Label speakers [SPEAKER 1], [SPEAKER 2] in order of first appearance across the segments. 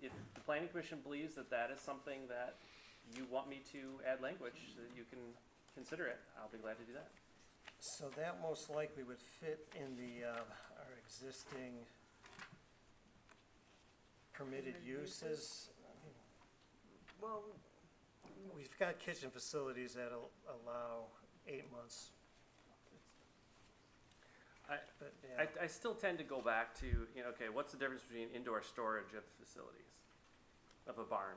[SPEAKER 1] the planning commission believes that that is something that you want me to add language, that you can consider it, I'll be glad to do that.
[SPEAKER 2] So that most likely would fit in the, uh, our existing permitted
[SPEAKER 3] Permitted
[SPEAKER 2] uses.
[SPEAKER 3] Well,
[SPEAKER 2] We've got kitchen facilities that al- allow eight months.
[SPEAKER 1] I-
[SPEAKER 2] But,
[SPEAKER 1] I,
[SPEAKER 2] yeah,
[SPEAKER 1] I still tend to go back to, you know, okay, what's the difference between indoor storage of facilities, of a barn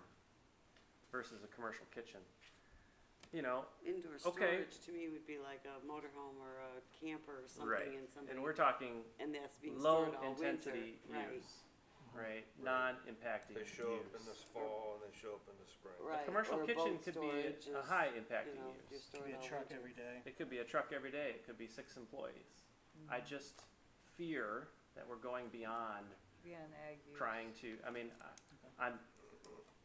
[SPEAKER 1] versus a commercial kitchen? You know,
[SPEAKER 3] indoor
[SPEAKER 1] Okay.
[SPEAKER 3] storage to me would be like a motorhome or a camper or
[SPEAKER 1] Right,
[SPEAKER 3] something and somebody,
[SPEAKER 1] and we're talking
[SPEAKER 3] and that's being
[SPEAKER 1] low
[SPEAKER 3] stored all winter,
[SPEAKER 1] intensity
[SPEAKER 3] right?
[SPEAKER 1] use, right, non-impacting
[SPEAKER 4] They
[SPEAKER 1] use.
[SPEAKER 4] show up in the fall and they show up in the spring.
[SPEAKER 1] A
[SPEAKER 3] Right,
[SPEAKER 1] commercial
[SPEAKER 3] or a
[SPEAKER 1] kitchen
[SPEAKER 3] boat
[SPEAKER 1] could be a-
[SPEAKER 3] storage
[SPEAKER 1] a
[SPEAKER 3] is,
[SPEAKER 1] high
[SPEAKER 3] You
[SPEAKER 1] impacting
[SPEAKER 3] know,
[SPEAKER 1] use.
[SPEAKER 3] if you're
[SPEAKER 2] could
[SPEAKER 3] stored
[SPEAKER 2] be
[SPEAKER 3] all
[SPEAKER 2] a
[SPEAKER 3] winter.
[SPEAKER 2] truck every day.
[SPEAKER 1] It could be a truck every day, it could be six employees. I just fear that we're going beyond
[SPEAKER 5] Be on ag use.
[SPEAKER 1] trying to, I mean, I- I'm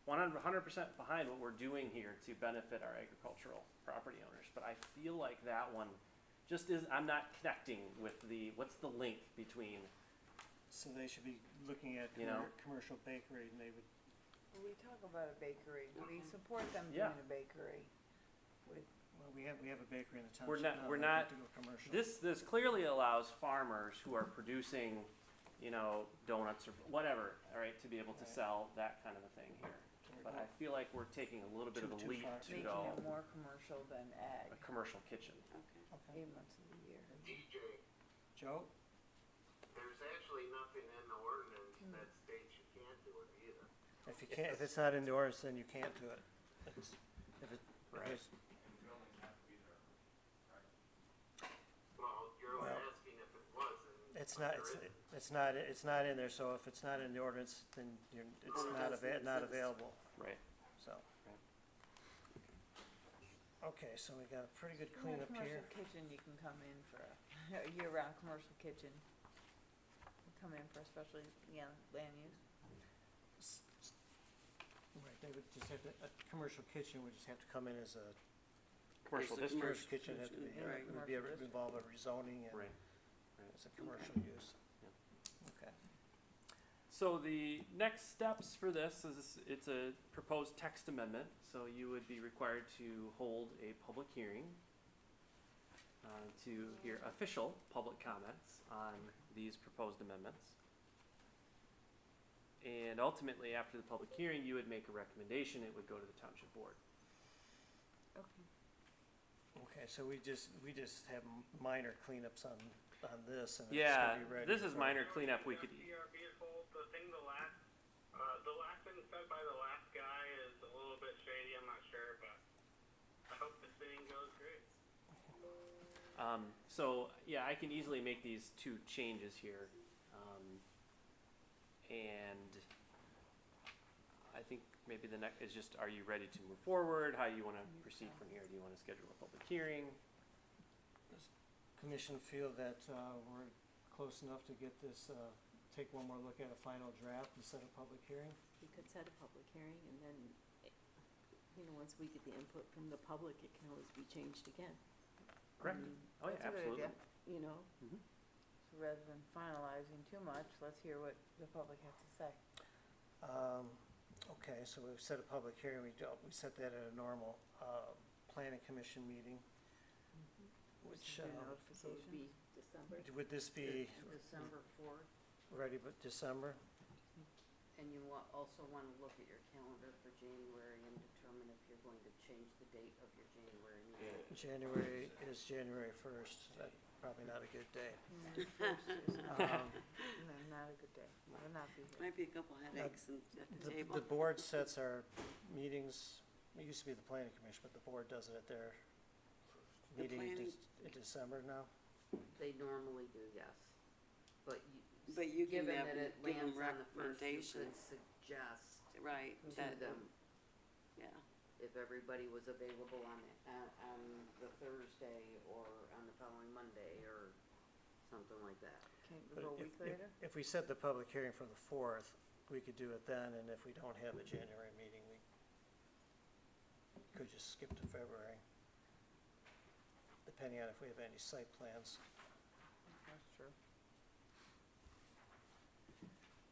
[SPEAKER 1] one hundred percent behind what we're doing here to benefit our agricultural property owners, but I feel like that one just is, I'm not connecting with the, what's the link between,
[SPEAKER 2] So they should be looking at
[SPEAKER 1] You know?
[SPEAKER 2] commer- commercial bakery and they would,
[SPEAKER 5] We talk about a bakery, we
[SPEAKER 3] Okay.
[SPEAKER 5] support them doing
[SPEAKER 1] Yeah.
[SPEAKER 5] a bakery.
[SPEAKER 2] well, we have, we have a bakery in the township.
[SPEAKER 1] We're not-
[SPEAKER 2] now,
[SPEAKER 1] we're
[SPEAKER 2] they'd have
[SPEAKER 1] not-
[SPEAKER 2] to go commercial.
[SPEAKER 1] this, this clearly allows farmers who are producing, you know, donuts or whatever, all right, to be able to
[SPEAKER 2] Right.
[SPEAKER 1] sell that kind of a thing here.
[SPEAKER 2] We're
[SPEAKER 1] But
[SPEAKER 2] going-
[SPEAKER 1] I feel like we're taking a little bit of
[SPEAKER 2] Too-
[SPEAKER 1] a
[SPEAKER 2] too
[SPEAKER 1] leap
[SPEAKER 2] far.
[SPEAKER 1] to
[SPEAKER 5] Making
[SPEAKER 1] go
[SPEAKER 5] it more commercial than ag,
[SPEAKER 1] a commercial kitchen.
[SPEAKER 3] Okay.
[SPEAKER 2] okay.
[SPEAKER 5] eight months of the year.
[SPEAKER 6] DJ,
[SPEAKER 2] Joe,
[SPEAKER 6] there's actually nothing in the ordinance that states you can't do it either.
[SPEAKER 2] if you can't, if it's not indoors, then you can't do it. It's- If it, if it's
[SPEAKER 6] Well, you're
[SPEAKER 2] Well-
[SPEAKER 6] asking if it was, and
[SPEAKER 2] It's not, it's, it's not, it's not in there, so if it's not in the ordinance, then you're, it's
[SPEAKER 3] Well, it
[SPEAKER 2] not
[SPEAKER 3] doesn't
[SPEAKER 2] ava- not
[SPEAKER 3] exist.
[SPEAKER 2] available,
[SPEAKER 1] Right.
[SPEAKER 2] so. Okay, so we got a pretty good cleanup here.
[SPEAKER 5] Commercial kitchen, you can come in for a, a year-round commercial kitchen. You Come in for especially, yeah, land use.
[SPEAKER 2] S- s- Right, they would just have to, a commercial kitchen would just have to come in as a,
[SPEAKER 1] Commercial
[SPEAKER 3] It's a
[SPEAKER 1] district.
[SPEAKER 2] commercial kitchen had to be,
[SPEAKER 3] kitchen, right.
[SPEAKER 2] it would be a-
[SPEAKER 5] Commercial
[SPEAKER 2] involve a rezoning and
[SPEAKER 1] Right.
[SPEAKER 2] it's a commercial use. Okay,
[SPEAKER 1] So the next steps for this is, it's a proposed text amendment, so you would be required to hold a public hearing uh, to hear official public comments on these proposed amendments. And ultimately, after the public hearing, you would make a recommendation, it would go to the township board.
[SPEAKER 5] Okay.
[SPEAKER 2] okay, so we just, we just have m- minor cleanups on, on this and it's
[SPEAKER 1] Yeah,
[SPEAKER 2] gonna be ready.
[SPEAKER 1] this is
[SPEAKER 2] for-
[SPEAKER 1] minor cleanup, we could,
[SPEAKER 6] CRB is old, the thing, the last, uh, the last thing said by the last guy is a little bit shady, I'm not sure, but I hope this thing goes great.
[SPEAKER 1] Um, so, yeah, I can easily make these two changes here. Um, and I think maybe the next is just, are you ready to move forward? How you wanna proceed from here? Do you wanna schedule a public hearing?
[SPEAKER 2] commission feel that uh, we're close enough to get this, uh, take one more look at a final draft and set a public hearing?
[SPEAKER 7] You could set a public hearing and then, eh, you know, once we get the input from the public, it can always be changed again,
[SPEAKER 1] Correct? Oh, yeah,
[SPEAKER 5] That's a
[SPEAKER 1] absolutely.
[SPEAKER 5] good
[SPEAKER 1] Mm-hmm.
[SPEAKER 5] idea.
[SPEAKER 7] you know?
[SPEAKER 5] So rather than finalizing too much, let's hear what the public has to say.
[SPEAKER 2] Um, Okay, so we've set a public hearing, we don't, we set that at a normal uh, planning commission meeting, which,
[SPEAKER 5] Do
[SPEAKER 2] uh,
[SPEAKER 7] So it would
[SPEAKER 5] notification.
[SPEAKER 7] be December.
[SPEAKER 2] would this be
[SPEAKER 8] December fourth,
[SPEAKER 2] ready by December?
[SPEAKER 8] and you wa- also wanna look at your calendar for January and determine if you're going to change the date of your January meeting.
[SPEAKER 2] January is January first, that's probably not a good day.
[SPEAKER 5] Mm, first is not-
[SPEAKER 2] Um,
[SPEAKER 5] no, Not a good day, will not be here.
[SPEAKER 3] Might be a couple headaches and- at
[SPEAKER 2] The,
[SPEAKER 3] the table.
[SPEAKER 2] the board sets our meetings, it used to be the planning commission, but the board does it at their
[SPEAKER 3] The
[SPEAKER 2] meeting in
[SPEAKER 3] planning-
[SPEAKER 2] Dec- in December now?
[SPEAKER 8] They normally do, yes, but you.
[SPEAKER 3] But you can
[SPEAKER 8] given
[SPEAKER 3] have-
[SPEAKER 8] that it
[SPEAKER 3] give 'em
[SPEAKER 8] lands on the first, you could
[SPEAKER 3] recommendations.
[SPEAKER 8] Suggest
[SPEAKER 3] Right,
[SPEAKER 8] to
[SPEAKER 3] that,
[SPEAKER 8] them
[SPEAKER 3] yeah,
[SPEAKER 8] if everybody was available on the, on, on the Thursday or on the following Monday or something like that.
[SPEAKER 5] Can't
[SPEAKER 2] But
[SPEAKER 5] we go a
[SPEAKER 2] if-
[SPEAKER 5] week
[SPEAKER 2] if-
[SPEAKER 5] later?
[SPEAKER 2] If we set the public hearing for the fourth, we could do it then, and if we don't have a January meeting, we could just skip to February, depending on if we have any site plans.
[SPEAKER 5] That's true.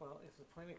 [SPEAKER 2] Well, if the planning